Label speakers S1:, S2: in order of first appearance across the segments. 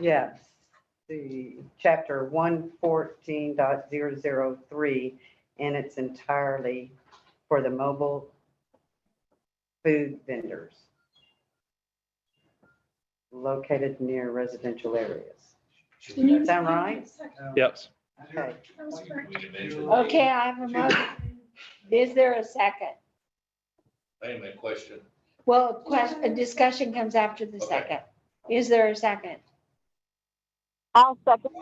S1: Yes, the chapter one fourteen dot zero zero three, and it's entirely for the mobile food vendors located near residential areas. Does that sound right?
S2: Yes.
S1: Okay,
S3: Okay, I have a motion. Is there a second?
S4: Wait a minute, question.
S3: Well, a question, a discussion comes after the
S4: Okay.
S3: second. Is there a second?
S5: I'll second.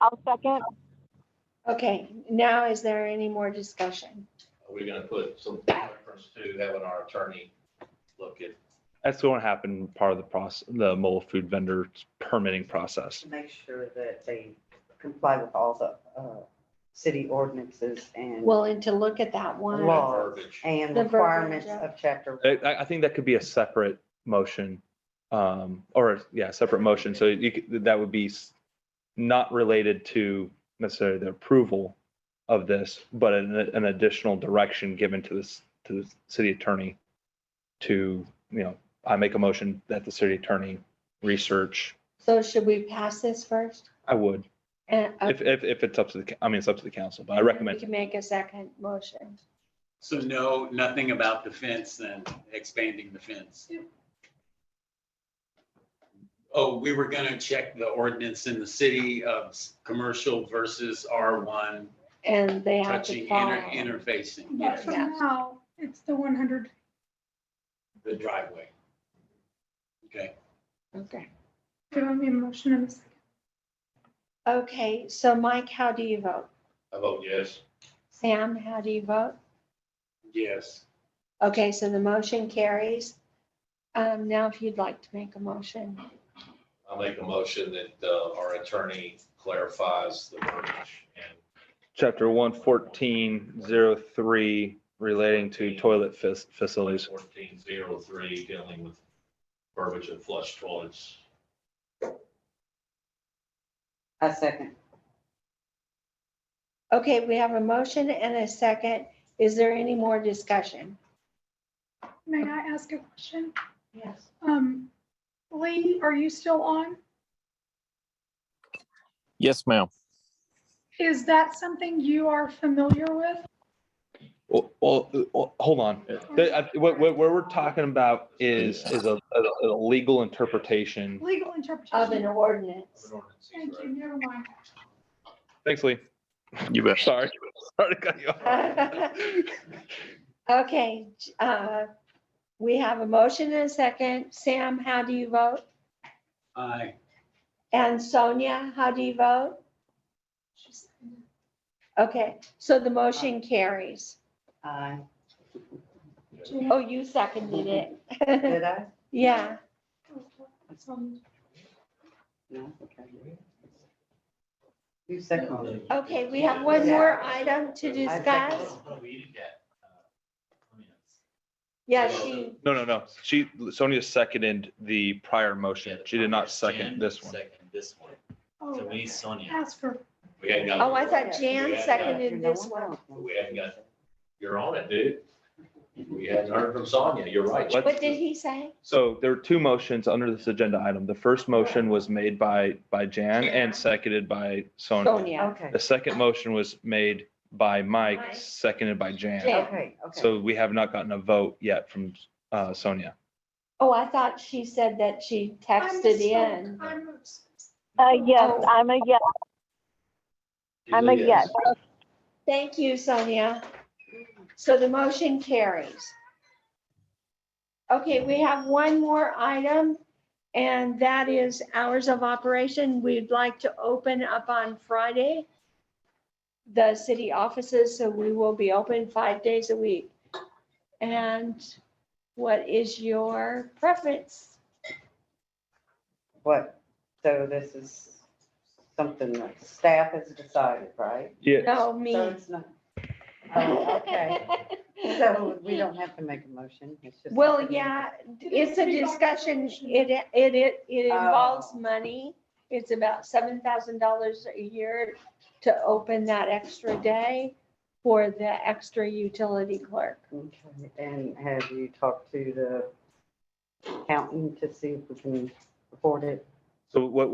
S5: I'll second.
S3: Okay, now is there any more discussion?
S4: Are we gonna put some reference to having our attorney look at?
S2: That's going to happen part of the process, the mobile food vendor permitting process.
S1: make sure that they comply with all the uh, city ordinances and
S3: Well, and to look at that one,
S1: Law.
S4: verbiage?
S1: and
S3: The verbiage,
S1: requirements
S3: yeah.
S1: of chapter.
S2: I, I- I think that could be a separate motion, um, or yeah, separate motion. So you could, that would be s- not related to necessarily the approval of this, but an, an additional direction given to this, to the city attorney to, you know, I make a motion that the city attorney research.
S3: so should we pass this first?
S2: I would,
S3: And, uh,
S2: if, if, if it's up to the, I mean, it's up to the council, but I recommend
S3: We can make a second motion.
S6: So no, nothing about the fence then, expanding the fence? Oh, we were gonna check the ordinance in the city of s- commercial versus R1,
S3: And they have to
S6: touching, inter-
S3: follow.
S6: interfacing,
S7: But
S6: yes,
S7: for now, it's the one hundred
S6: the driveway. Okay,
S3: Okay.
S7: Do you want me a motion in a second?
S3: Okay, so Mike, how do you vote?
S4: I vote yes.
S3: Sam, how do you vote?
S6: yes.
S3: Okay, so the motion carries. Um, now if you'd like to make a motion,
S4: I'll make a motion that uh, our attorney clarifies the verbiage and
S2: chapter one fourteen zero three relating to toilet fac- facilities.
S4: fourteen zero three dealing with verbiage of flush toilets.
S1: A second.
S3: okay, we have a motion and a second. Is there any more discussion?
S7: May I ask a question?
S3: Yes.
S7: Um, Lee, are you still on?
S8: Yes, ma'am.
S7: Is that something you are familiar with?
S2: Well, well, well, hold on. The- I- What, what, what we're talking about is, is a, a- a legal interpretation.
S7: Legal
S3: Of an
S7: interpretation?
S3: ordinance.
S7: Thank you, never mind.
S2: Thanks, Lee.
S8: You bet.
S2: Sorry. Sorry to cut you off.
S3: Okay, uh, we have a motion and a second. Sam, how do you vote?
S6: Aye.
S3: And Sonia, how do you vote? Okay, so the motion carries.
S1: Aye.
S3: Oh, you seconded it.
S1: Did I?
S3: Yeah,
S1: No, okay. You seconded.
S3: okay, we have one more item to discuss. Yeah, she,
S2: No, no, no. She, Sonia seconded the prior motion. She did not second this one.
S9: Second this one. So we
S7: Oh,
S9: need Sonia.
S7: Ask for,
S4: We hadn't got.
S3: oh, I thought Jan seconded this one.
S4: We hadn't got, you're on it, dude. We hadn't heard from Sonia. You're right.
S2: What?
S3: What did he say?
S2: So there were two motions under this agenda item. The first motion was made by, by Jan and seconded by Sonia.
S3: Sonia.
S1: Okay,
S2: The second motion was made by Mike,
S3: Mike.
S2: seconded by Jan.
S3: Jan.
S1: okay, okay.
S2: So we have not gotten a vote yet from uh, Sonia.
S3: Oh, I thought she said that she
S7: I'm
S3: texted
S7: a,
S3: in.
S7: I'm a,
S5: Uh, yes, I'm a yes. I'm a yes.
S3: Thank you, Sonia. So the motion carries. Okay, we have one more item, and that is hours of operation. We'd like to open up on Friday, the city offices, so we will be open five days a week. And what is your preference?
S1: What, so this is something that staff has decided, right?
S2: Yeah.
S3: No, me.
S1: So it's not. Oh, okay. So we don't have to make a motion. it's just-
S3: Well, yeah, it's a discussion, it, it, it it involves
S1: Oh.
S3: money. It's about seven thousand dollars a year to open that extra day for the extra utility clerk.
S1: Okay, And have you talked to the accountant to see if we can afford it?
S2: So what,